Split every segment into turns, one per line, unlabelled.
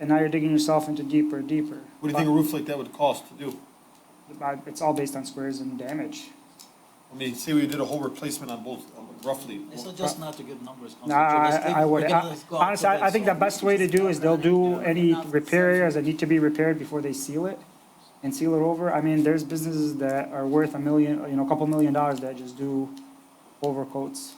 and now you're digging yourself into deeper and deeper.
What do you think a roof like that would cost to do?
But It's all based on squares and damage.
I mean, say we did a whole replacement on both, roughly.
I suggest not to give numbers. Council
No,
Chair. Let's
I,
leave-
I
we
would,
can just go out to
honestly, I I think the
bid, so-
best way to do is they'll do any repairs that need to be repaired before they seal it and seal it over. I mean, there's businesses that are worth a million, you know, a couple million dollars that just do overcoats.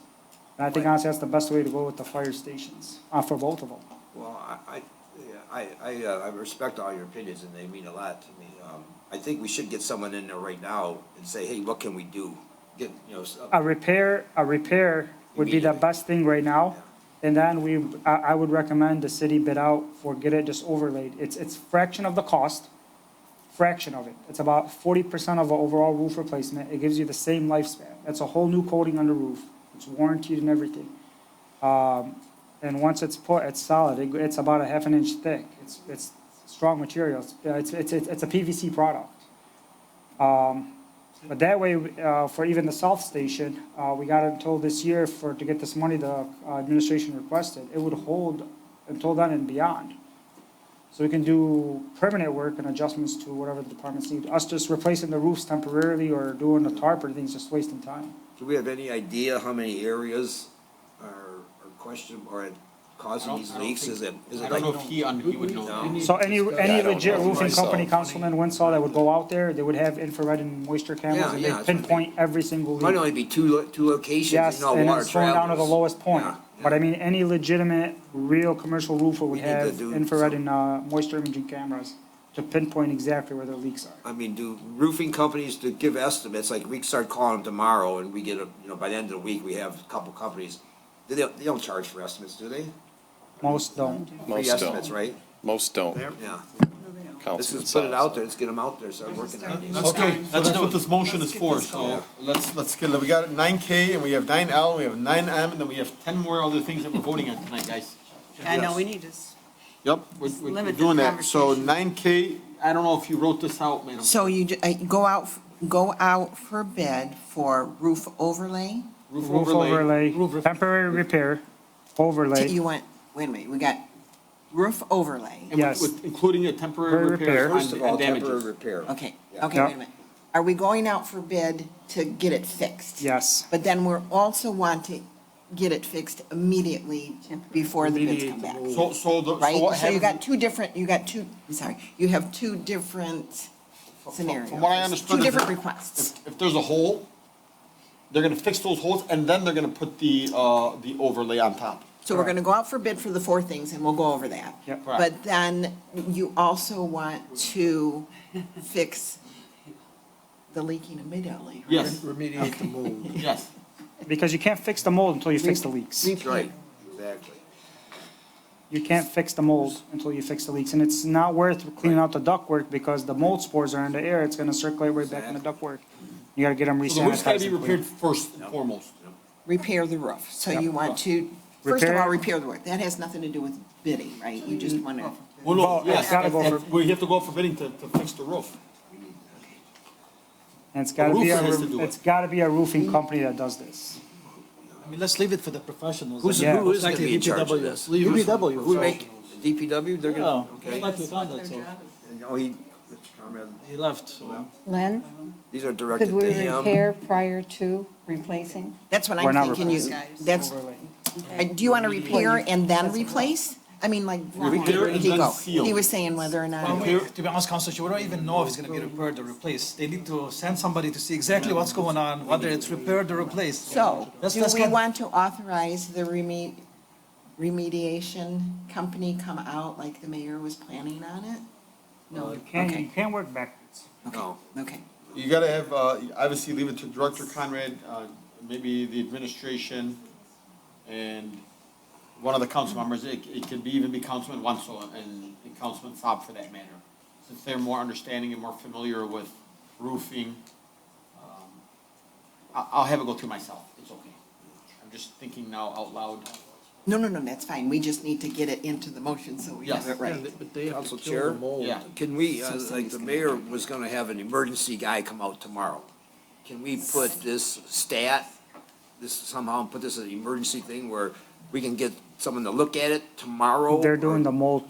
And I think honestly, that's the best way to go with the fire stations, uh, for both of them.
Well, I, I, yeah, I, I, uh, I respect all your opinions and they mean a lot to me. Um, I think we should get someone in there right now and say, hey, what can we do? Get, you know, s- uh,
A repair, a repair would be the
Immediately.
best thing right now. And then we, I, I would recommend the city bid out for get it just overlaid. It's, it's fraction of the cost, fraction of it. It's about forty percent of an overall roof replacement. It gives you the same lifespan. That's a whole new coating on the roof. It's warranted and everything. Um, and once it's put, it's solid. It, it's about a half an inch thick. It's, it's strong material. It's- It's, it's, it's, it's a PVC product. Um, but that way, uh, for even the South Station, uh, we got until this year for, to get this money the uh, administration requested. It would hold until then and beyond. So we can do permanent work and adjustments to whatever the departments need. Us just replacing the roofs temporarily or doing the tarp or things, just wasting time.
do we have any idea how many areas are, are question, are
I
causing
don't-
these
I don't
leaks?
think-
Is it, is
I
it
don't know
like,
if he, un- he would know.
no?
So any, any legit roofing company,
myself.
Councilman Winslow, that would go out there, they would have infrared and moisture cameras
Yeah,
and
yeah,
they
that's what I mean.
pinpoint every single leak.
Might only be two, lo- two locations,
Yes,
you know,
and
water
it's going down to the
travels.
lowest point.
Yeah,
But I
yeah.
mean, any legitimate, real commercial roofer
We
would
need to
have
do
infrared and,
some-
uh, moisture imaging cameras to pinpoint exactly where their leaks are.
I mean, do roofing companies to give estimates, like we start calling them tomorrow and we get a, you know, by the end of the week, we have a couple companies. They don't, they don't charge for estimates, do they?
Most don't.
Free
Most
estimates,
don't.
right?
Most don't.
Yeah. Let's
Councilman
just put it
Salas.
out there, let's get them out there, start working on these.
Okay, so that's what this motion is for,
going.
so let's, let's get, we got nine K and we have nine L, we have nine M, and then we have ten more other things that we're voting on tonight, guys.
I know, we need this.
Yep, we're,
Just
we're- we're
limit the
doing that. So
conversation.
nine K, I don't know if you wrote this out, madam.
So you, ju- uh, go out, go out for bid for roof overlay?
Roof
Roof
overlay.
overlay, temporary repair, overlay,
You went, wait a minute, we got roof overlay.
and with-
Yes.
with- Including a temporary
Temporary
repair
repair.
First of all,
and
temporary
damages.
repair.
Okay,
Yeah.
okay, wait a minute. Are we going out for bid to get it fixed?
yes.
But then we're also want to get it fixed immediately before the bids come back,
So, so the, so
right?
what
So you got
happens,
two different, you got two, I'm sorry, you have two different scenarios.
from what I understood
Two
is
different
that-
requests.
if, if there's a hole, they're gonna fix those holes and then they're gonna put the, uh, the overlay on top.
So we're gonna go out for bid for the four things, and we'll go over that.
Yep.
Correct.
But then you also want to fix the leaking immediately. right?
Yes,
remediate the mold.
yes.
Because you can't fix the mold until you fix the leaks.
That's right, exactly.
You can't fix the mold until you fix the leaks. And it's not worth cleaning out the ductwork because the mold spores are in the air. It's gonna circulate right back in the ductwork. You gotta get them
So the roof's gotta be
re-sanitized. and
repaired
cleaned.
first and foremost.
Repair the roof, so you want to, first of all,
Repair-
repair the roof, that has nothing to do with bidding, right? You just wanna,
Mm-hmm.
Well,
Well, no,
it's
yes,
gotta
that-
go
that-
for-
we have to go out for bidding to, to fix the roof.
And it's gotta be,
roofer has to do
a-
it.
it's gotta be a roofing company that does this.
I mean, let's leave it for the professionals.
Who's,
Yeah.
who is gonna be in charge of
DPW.
this?
Leave it- E
DPW. Who make, the DPW, they're
Yeah,
gonna,
it's
okay.
Oh, like we found it, so
Oh, he, Conrad,
he left, so.
Len,
these are directed
could
to
we
him.
repair prior to replacing?
that's what
We're
I'm
not
thinking, you,
replacing.
that's, uh, do you wanna repair and then replace? I mean, like,
Repair and then
Diego,
seal.
he was saying whether or not.
Well, we- To be honest, Council Chair, we don't even know if it's gonna be repaired or replaced. They need to send somebody to see exactly what's going on, whether it's repaired or replaced.
So,
Let's-
do
let's
we
get-
want to authorize the reme- remediation company come out like the mayor was planning on it? No,
You can't, you
okay.
can't work backwards.
No.
Okay.
You gotta have, uh, obviously leave it to Director Conrad, uh, maybe the administration and one of the council members. It, it could be, even be Councilman Wenzel and, and Councilman Saab for that matter. Since they're more understanding and more familiar with roofing. um, I, I'll have it go through myself. It's okay. I'm just thinking now out loud.
No, no, no, that's fine. We just need to get it into the motion so we have
Yes.
it right.
But they have
Council
to
Chair?
kill the mold.
Yeah.
Can we, uh, like,
Something's
the
gonna
mayor was gonna have an emergency guy come out tomorrow. Can we put this stat, this somehow, put this as an emergency thing where we can get someone to look at it tomorrow?
They're
or-
doing the mold